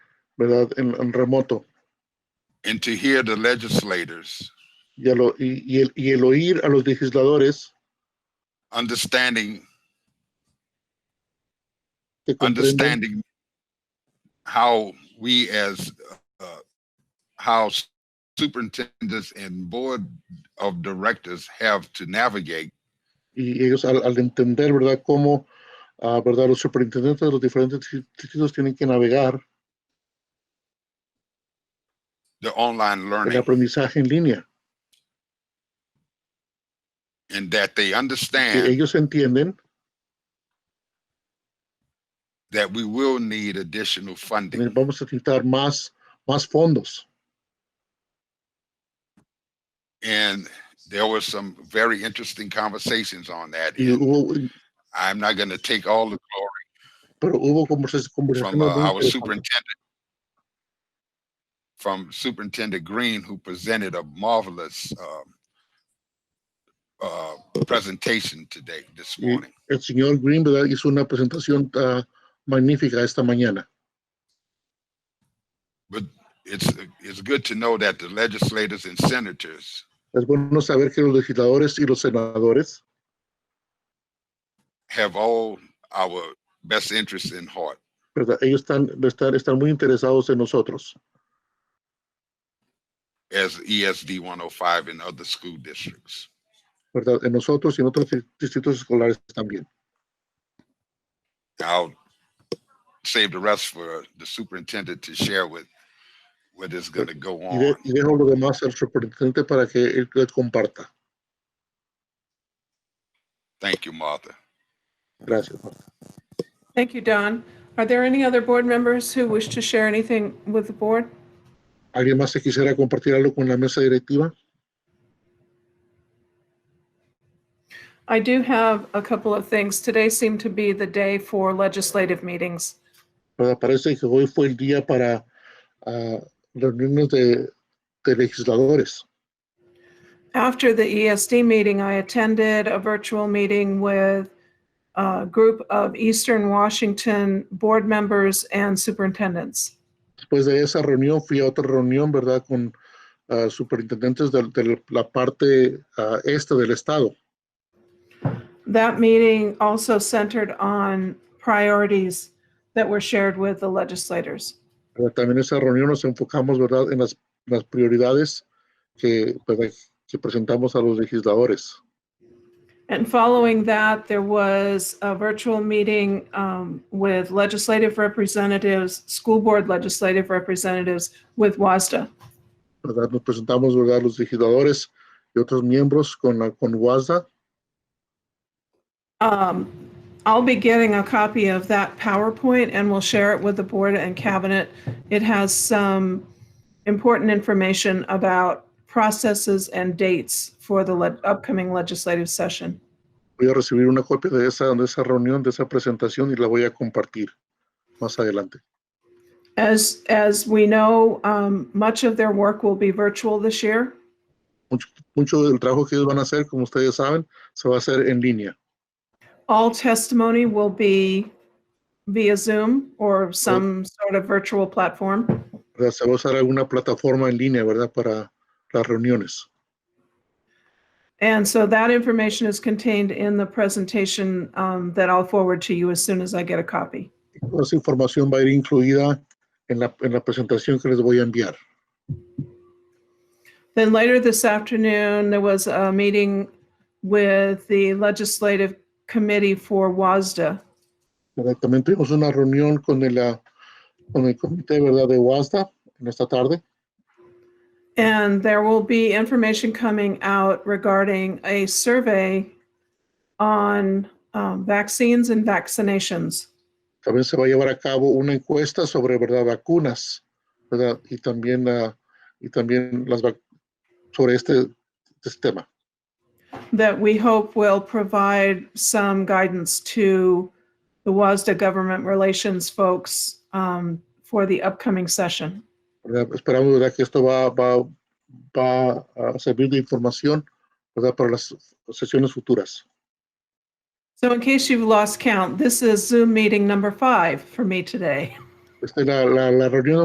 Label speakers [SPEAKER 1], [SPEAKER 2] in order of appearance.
[SPEAKER 1] ¿verdad? En, en remoto.
[SPEAKER 2] and to hear the legislators
[SPEAKER 1] Y, a lo- y- y el, y el oír a los legisladores
[SPEAKER 2] understanding
[SPEAKER 1] que comprenden,
[SPEAKER 2] understanding how we as uh, how superintendents and board of directors have to navigate
[SPEAKER 1] y ellos al, al entender, ¿verdad? Cómo, ah, ¿verdad? Los superintendentes de los diferentes dis- distritos tienen que navegar
[SPEAKER 2] the online
[SPEAKER 1] el
[SPEAKER 2] learning
[SPEAKER 1] aprendizaje en línea.
[SPEAKER 2] and that they
[SPEAKER 1] Que
[SPEAKER 2] understand
[SPEAKER 1] ellos entienden
[SPEAKER 2] that we will need additional
[SPEAKER 1] que
[SPEAKER 2] funding
[SPEAKER 1] vamos a necesitar más, más fondos.
[SPEAKER 2] and there were some very interesting conversations on that
[SPEAKER 1] Y
[SPEAKER 2] and
[SPEAKER 1] hubo,
[SPEAKER 2] i'm not going to take all the
[SPEAKER 1] pero hubo conversa-
[SPEAKER 2] glory
[SPEAKER 1] conversaciones
[SPEAKER 2] from uh,
[SPEAKER 1] muy
[SPEAKER 2] our
[SPEAKER 1] interesantes.
[SPEAKER 2] superintendent from superintendent green who presented a marvelous um, uh, presentation today this
[SPEAKER 1] Mm.
[SPEAKER 2] morning
[SPEAKER 1] El señor Green, ¿verdad? Hizo una presentación ah, magnífica esta mañana.
[SPEAKER 2] it's it's good to know that the legislators and senators
[SPEAKER 1] Es bueno saber que los legisladores y los senadores
[SPEAKER 2] have all our best interests in heart
[SPEAKER 1] ¿verdad? Ellos están, están, están muy interesados en nosotros,
[SPEAKER 2] as E ESD 105 and other school districts.
[SPEAKER 1] ¿verdad? En nosotros y en otros dis- distritos escolares también.
[SPEAKER 2] I'll save the rest for the superintendent to share with what is going to go
[SPEAKER 1] Y, de-
[SPEAKER 2] on.
[SPEAKER 1] y dejo lo demás al superintendente para que él les comparta.
[SPEAKER 2] Thank you, Martha.
[SPEAKER 1] Gracias.
[SPEAKER 3] Thank you, Don. Are there any other board members who wish to share anything with the board?
[SPEAKER 1] ¿Alguien más que quisiera compartir algo con la mesa directiva?
[SPEAKER 3] I do have a couple of things. Today seemed to be the day for legislative meetings.
[SPEAKER 1] ¿Verdad? Pues, Parece que hoy fue el día para ah, reuniones de, de legisladores.
[SPEAKER 3] After the ESD meeting, I attended a virtual meeting with a group of Eastern Washington board members and superintendents.
[SPEAKER 1] Después de esa reunión fui a otra reunión, ¿verdad? Con ah, superintendentes del- de, la parte ah, este del estado.
[SPEAKER 3] That meeting also centered on priorities that were shared with the legislators.
[SPEAKER 1] Pero también en esa reunión nos enfocamos, ¿verdad?, en las, las prioridades que, ¿verdad? que presentamos a los legisladores.
[SPEAKER 3] And following that, there was a virtual meeting um, with legislative representatives, school board legislative representatives with WASDA.
[SPEAKER 1] ¿verdad? Nos presentamos, ¿verdad?, los legisladores y otros miembros con, la- con WASDA.
[SPEAKER 3] Um, I'll be getting a copy of that PowerPoint and we'll share it with the board and cabinet. It has some important information about processes and dates for the le- upcoming legislative session.
[SPEAKER 1] Voy a recibir una copia de esa, de esa reunión, de esa presentación y la voy a compartir más adelante.
[SPEAKER 3] As, as we know, um, much of their work will be virtual this year.
[SPEAKER 1] Mucho del trabajo que ellos van a hacer, como ustedes saben, se va a hacer en línea.
[SPEAKER 3] All testimony will be via Zoom or some sort of virtual platform.
[SPEAKER 1] ¿verdad? Se va a usar alguna plataforma en línea, ¿verdad?, para las reuniones.
[SPEAKER 3] And so that information is contained in the presentation um, that I'll forward to you as soon as I get a copy.
[SPEAKER 1] Toda esa información va a ir incluida en la, en la presentación que les voy a enviar.
[SPEAKER 3] Then later this afternoon, there was a meeting with the Legislative Committee for WASDA.
[SPEAKER 1] ¿verdad? También tuvimos una reunión con el, ah, con el comité, ¿verdad?, de WASDA en esta tarde.
[SPEAKER 3] And there will be information coming out regarding a survey on um, vaccines and vaccinations.
[SPEAKER 1] También se va a llevar a cabo una encuesta sobre, ¿verdad?, vacunas, ¿verdad? Y también, ah, y también las vac- sobre este, este tema.
[SPEAKER 3] that we hope will provide some guidance to the WASDA government relations folks um, for the upcoming session.
[SPEAKER 1] ¿verdad? Esperamos, ¿verdad?, que esto va, va, va a servir de información, ¿verdad?, para las sesiones futuras.
[SPEAKER 3] So in case you've lost count, this is Zoom meeting number five for me today.
[SPEAKER 1] Esta es la, la, la reunión